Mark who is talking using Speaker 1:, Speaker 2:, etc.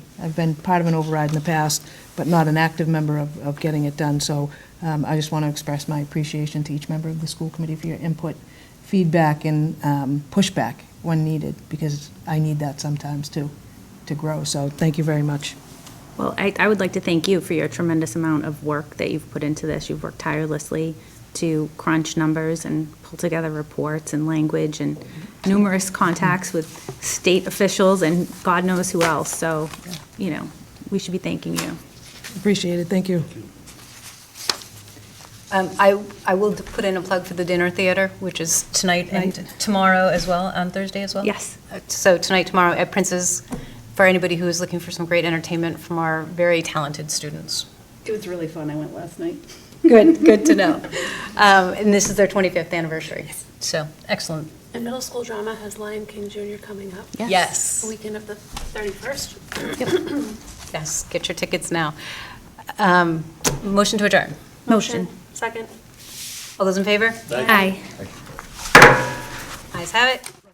Speaker 1: I've been part of an override in the past, but not an active member of, of getting it done. So um, I just want to express my appreciation to each member of the school committee for your input, feedback, and um, pushback when needed, because I need that sometimes too, to grow. So thank you very much.
Speaker 2: Well, I, I would like to thank you for your tremendous amount of work that you've put into this. You've worked tirelessly to crunch numbers and pull together reports and language and numerous contacts with state officials and God knows who else. So, you know, we should be thanking you.
Speaker 1: Appreciate it, thank you.
Speaker 3: Um, I, I will put in a plug for the dinner theater, which is tonight and
Speaker 1: Tonight.
Speaker 3: tomorrow as well, on Thursday as well?
Speaker 2: Yes.
Speaker 3: Uh, So tonight, tomorrow at Prince's, for anybody who is looking for some great entertainment from our very talented students.
Speaker 4: It was really fun. I went last night.
Speaker 3: Good, good to know. Um, And this is their 25th anniversary, so, excellent.
Speaker 5: And middle school drama has Lion King Junior coming up.
Speaker 2: Yes.
Speaker 3: Yes.
Speaker 5: The weekend of the 31st.
Speaker 3: Yes, get your tickets now. Um, Motion to adjourn.
Speaker 2: Motion.
Speaker 5: Second.
Speaker 3: All those in favor?
Speaker 2: Aye.
Speaker 3: Ayes have it.